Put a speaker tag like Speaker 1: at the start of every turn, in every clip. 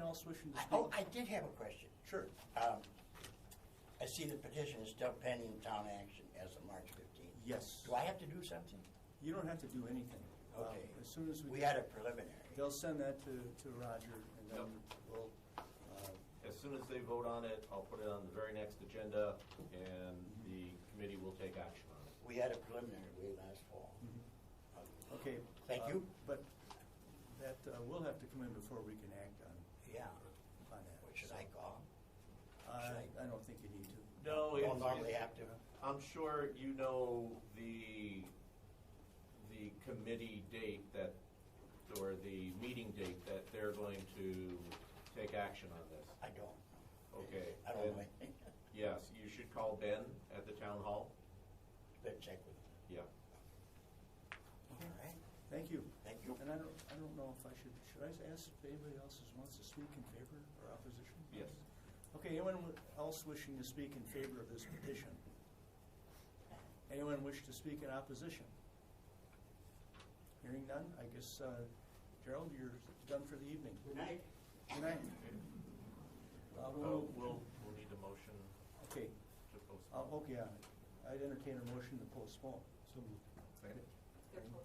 Speaker 1: else wishing to speak?
Speaker 2: Oh, I did have a question.
Speaker 1: Sure.
Speaker 2: Um, I see the petition is still pending town action as of March 15th.
Speaker 1: Yes.
Speaker 2: Do I have to do something?
Speaker 1: You don't have to do anything. Um,
Speaker 2: Okay.
Speaker 1: As soon as we.
Speaker 2: We had a preliminary.
Speaker 1: They'll send that to, to Roger and then
Speaker 3: Yep.
Speaker 1: we'll, uh,
Speaker 3: As soon as they vote on it, I'll put it on the very next agenda, and the committee will take action on it.
Speaker 2: We had a preliminary way last fall.
Speaker 1: okay.
Speaker 2: Thank
Speaker 1: uh,
Speaker 2: you.
Speaker 1: But that, uh, we'll have to come in before we can act on,
Speaker 2: Yeah.
Speaker 1: on that.
Speaker 2: What should I call?
Speaker 1: I, I don't think you need to.
Speaker 3: No,
Speaker 2: Don't normally have to.
Speaker 3: I'm sure you know the, the committee date that, or the meeting date that they're going to take action on this.
Speaker 2: I don't.
Speaker 3: Okay.
Speaker 2: I don't know
Speaker 3: then-
Speaker 2: anything.
Speaker 3: Yes, you should call Ben at the town hall.
Speaker 2: Better check with
Speaker 3: Yeah.
Speaker 2: them. All right.
Speaker 1: Thank you.
Speaker 2: Thank you.
Speaker 1: And I don't, I don't know if I should, should I ask if anybody else is- wants to speak in favor or opposition?
Speaker 3: Yes.
Speaker 1: Okay, anyone else wishing to speak in favor of this petition? Anyone wish to speak in opposition? Hearing none, I guess uh, Gerald, you're done for the evening.
Speaker 2: Good night.
Speaker 1: Good night. Uh,
Speaker 3: Uh,
Speaker 1: we'll-
Speaker 3: We'll, we'll need a motion
Speaker 1: Okay,
Speaker 3: to
Speaker 1: uh,
Speaker 3: postpone.
Speaker 1: okay, uh, I'd entertain a motion to postpone. So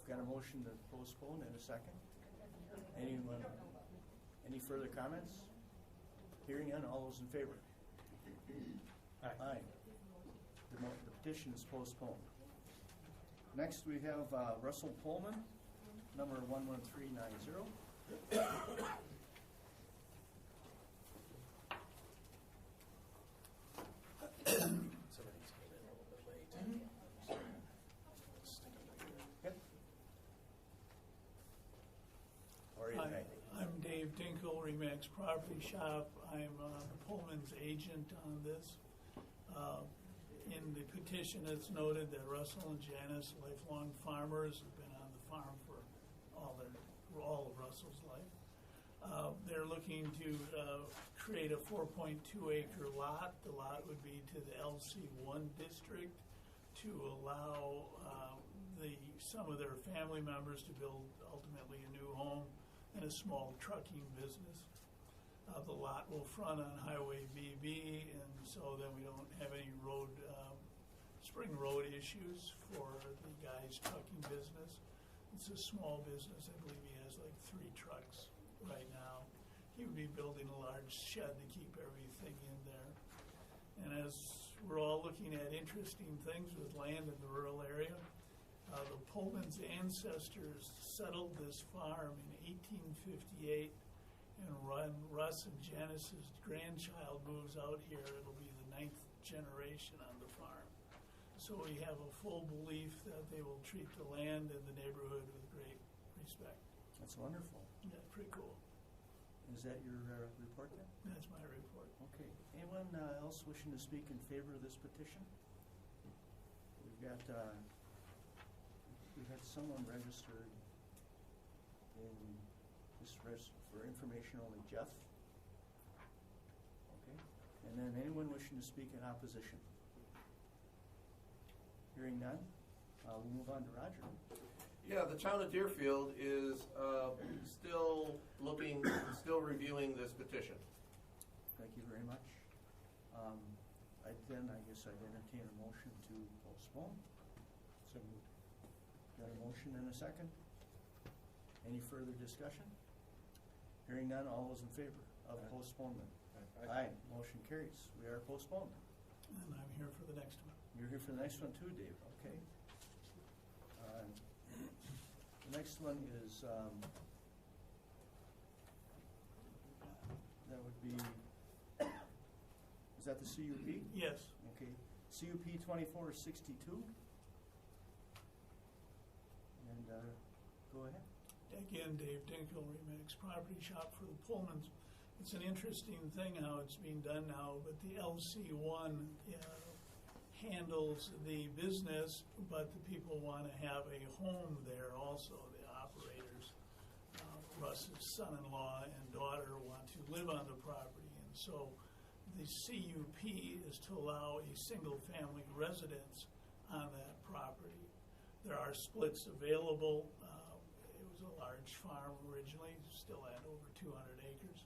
Speaker 1: Got a motion to postpone and a second? Anyone, any further comments? Hearing none, all those in favor? Aye. The mo- the petition is postponed. Next, we have uh, Russell Pullman, number 11390.
Speaker 2: Somebody's came in a little bit late.
Speaker 1: Mm-hmm. Yep.
Speaker 2: Or is
Speaker 4: Hi,
Speaker 2: it?
Speaker 4: I'm Dave Dinkle, Remax Property Shop. I'm uh, Pullman's agent on this. Uh, In the petition, it's noted that Russell and Janice, lifelong farmers, have been on the farm for all their, for all of Russell's life. Uh, They're looking to uh, create a 4.2 acre lot. The lot would be to the LC1 district to allow uh, the, some of their family members to build ultimately a new home and a small trucking business. Uh, The lot will front on Highway BB, and so then we don't have any road, um, spring road issues for the guy's trucking business. It's a small business, I believe he has like three trucks right now. He would be building a large shed to keep everything in there. And as we're all looking at interesting things with land in the rural area, uh, the Pullman's ancestors settled this farm in 1858, and Ron, Russ and Janice's grandchild moves out here. It'll be the ninth generation on the farm. So we have a full belief that they will treat the land and the neighborhood with great respect.
Speaker 1: That's wonderful.
Speaker 4: That's pretty cool.
Speaker 1: Is that your uh, report then?
Speaker 4: That's my report.
Speaker 1: Okay. Anyone uh, else wishing to speak in favor of this petition? We've got, uh, we've had someone registered in, this res for information only, Jeff. Okay. And then anyone wishing to speak in opposition? Hearing none, uh, we'll move on to Roger.
Speaker 3: Yeah, the town of Deerfield is uh, still looking, still reviewing this petition.
Speaker 1: Thank you very much. Um, I Then I guess I entertain a motion to postpone. So Got a motion and a second? Any further discussion? Hearing none, all those in favor of postponement? Aye, motion carries. We are postponed.
Speaker 4: And I'm here for the next one.
Speaker 1: You're here for the next one too, Dave, okay? Um, The next one is, um, that would be, is that the CUP?
Speaker 4: Yes.
Speaker 1: Okay, CUP twenty-four sixty-two. And, uh, go ahead.
Speaker 4: Again, Dave Dinkle, Remax Property Shop for the Pullmans. It's an interesting thing how it's being done now, but the LC1 uh, handles the business, but the people want to have a home there also, the operators. Uh, Russ's son-in-law and daughter want to live on the property, and so the CUP is to allow a single-family residence on that property. There are splits available. Uh, It was a large farm originally, still had over 200 acres.